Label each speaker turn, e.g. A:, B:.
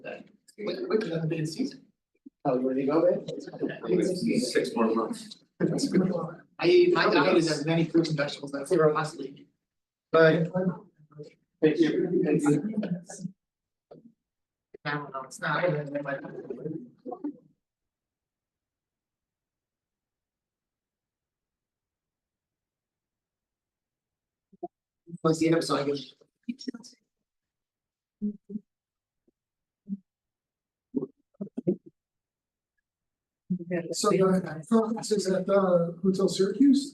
A: Which, which is the season? Oh, you ready to go, babe?
B: Six more months.
A: That's good. I, ate- my diet is as many fruits and vegetables as I were last week.
B: Bye.
A: Thank you. No, no, it's not. Let's see, I'm sorry.
C: Yeah,
D: So, uh, so this is at, uh, Hotel Syracuse?